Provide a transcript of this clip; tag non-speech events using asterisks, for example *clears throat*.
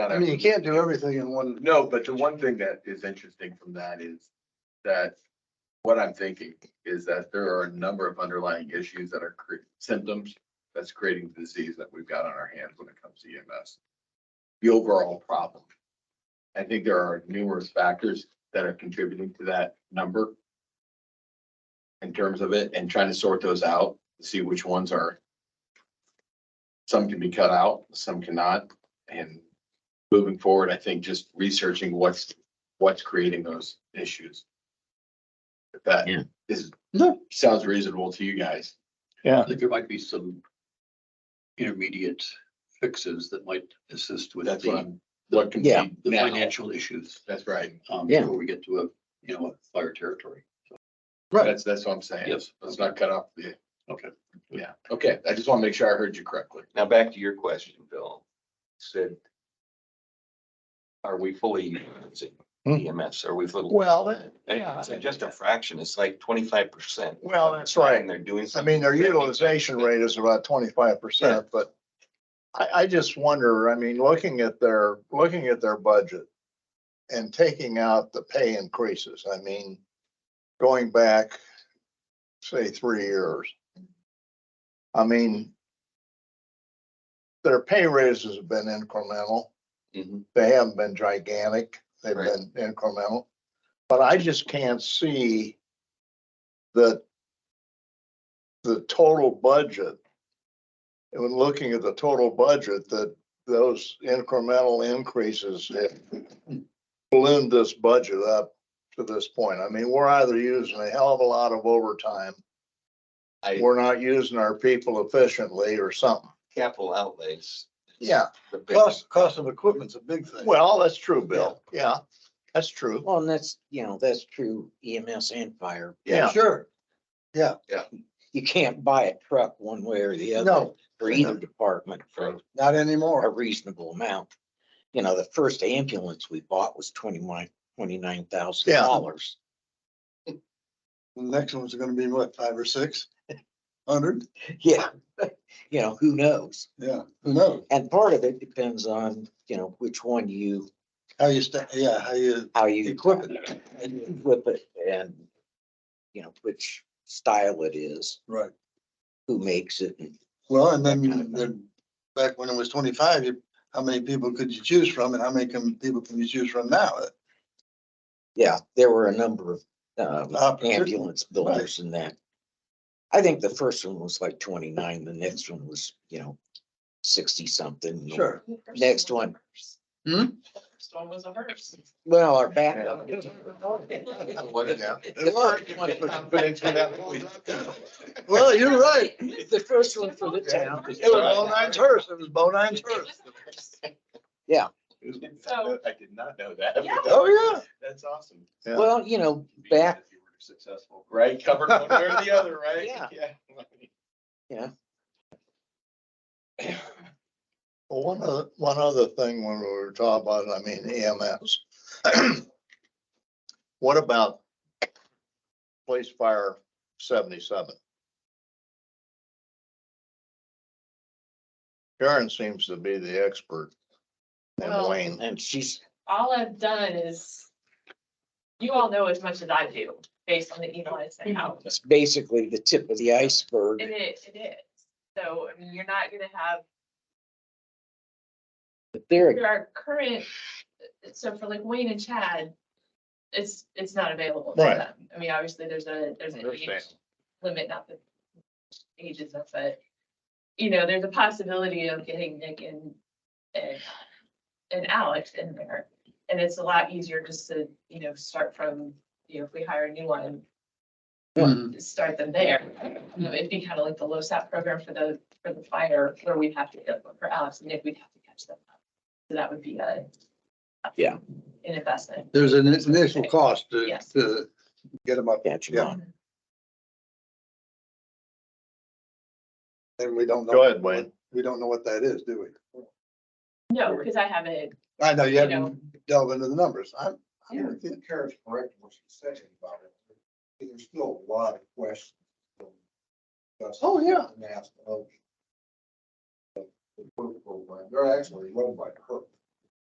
I mean, you can't do everything in one. No, but the one thing that is interesting from that is that what I'm thinking is that there are a number of underlying issues that are cre- symptoms that's creating the disease that we've got on our hands when it comes to EMS. The overall problem. I think there are numerous factors that are contributing to that number in terms of it and trying to sort those out, see which ones are some can be cut out, some cannot, and moving forward, I think just researching what's, what's creating those issues. If that Yeah. is, No. sounds reasonable to you guys. I think there might be some intermediate fixes that might assist with That's what the, I'm, what can Yeah. be, the now. financial issues. that's right. um, Yeah. Before we get to a, you know, a fire territory. Right. That's, that's what I'm saying. Yes. Let's not cut off the. Okay. Yeah, okay. I just want to make sure I heard you correctly. Now, back to your question, Bill. Said, are we fully using EMS? Are we fully? Hmm. Well, that- And yeah. it's Just a fraction. It's like twenty-five percent. Well, that's right. They're doing I something. mean, their utilization rate is about twenty-five percent, but I, I just wonder, I mean, looking at their, looking at their budget and taking out the pay increases, I mean, going back, say, three years. I mean, their pay raises have been incremental. Mhm. They haven't been gigantic. They've Right. been incremental. But I just can't see that the total budget, and when looking at the total budget, that those incremental increases have ballooned this budget up to this point. I mean, we're either using a hell of a lot of overtime, I, we're not using our people efficiently or something. capital outlays. Yeah, The big- Cost, cost of equipment's a big thing. well, that's true, Bill. Yeah, that's true. Well, and that's, you know, that's true EMS and fire. Yeah, Sure, You can't buy a truck one way or the other no, for either department for not a anymore. reasonable amount. You know, the first ambulance we bought was twenty-one, twenty-nine thousand Yeah. dollars. The next one's gonna be what, five or six hundred? Yeah. *laughs* You know, who knows? Yeah, who knows? And part of it depends on, you know, which one you, How you sta, yeah, how you how you equip it, equip it and, you know, which style it is, right? who makes it and Well, and That kind of then, thing. then, back when it was twenty-five, you- how many people could you choose from and how many can, people can you choose from now? Yeah, there were a number of um, Opportunity, ambulance builders in that. I think the first one was like twenty-nine, the next one was, you know, sixty-something. Sure. Next one. Hmm? First one was a hearse. Well, our backup. *laughs* What is that? The *laughs* first one- *laughs* Well, you're right. The first one for the town. It was Bo Nine's hers. It was Bo Nine's hers. So- I did not know that. Yeah. Oh, yeah. That's awesome. Yeah. Well, you know, back, If you were Successful, right? Covered one way or the other, right? Yeah. Yeah. Well, one other, one other thing when we were talking about, I mean EMS. *clears throat* What about police fire seventy-seven? Karen seems to be the expert. And Well- Wayne, and she's, All I've done is, you all know as much as I do, based on the email I sent out, it's basically the tip of the and iceberg, it, it is. So, I mean, you're not gonna have, but they're, there are current, so for like Wayne and Chad, it's, it's not available to Right. them. I mean, obviously, there's a, there's an age Understand. limit, not the ages of it. You know, there's a possibility of getting Nick and, and, and Alex in there. And it's a lot easier just to, you know, start from, you know, if we hire a new one, start them there. You know, It'd be kind of like the LoSAP program for the, for the fire, where we'd have to get one for Alex and Nick, we'd have to catch them up. So that would be a. Yeah. An investment. There's an initial cost to, Yes. to get them up, catching Yeah. on. and we don't know. Go ahead, Wayne. We don't know what that is, do we? No, because I haven't, I know you You know. haven't delved into the numbers. I'm, I'm with you. Karen's correct in what she's saying about it. There's still a lot of questions. Oh, yeah. And asked of. The work program, they're actually run by her.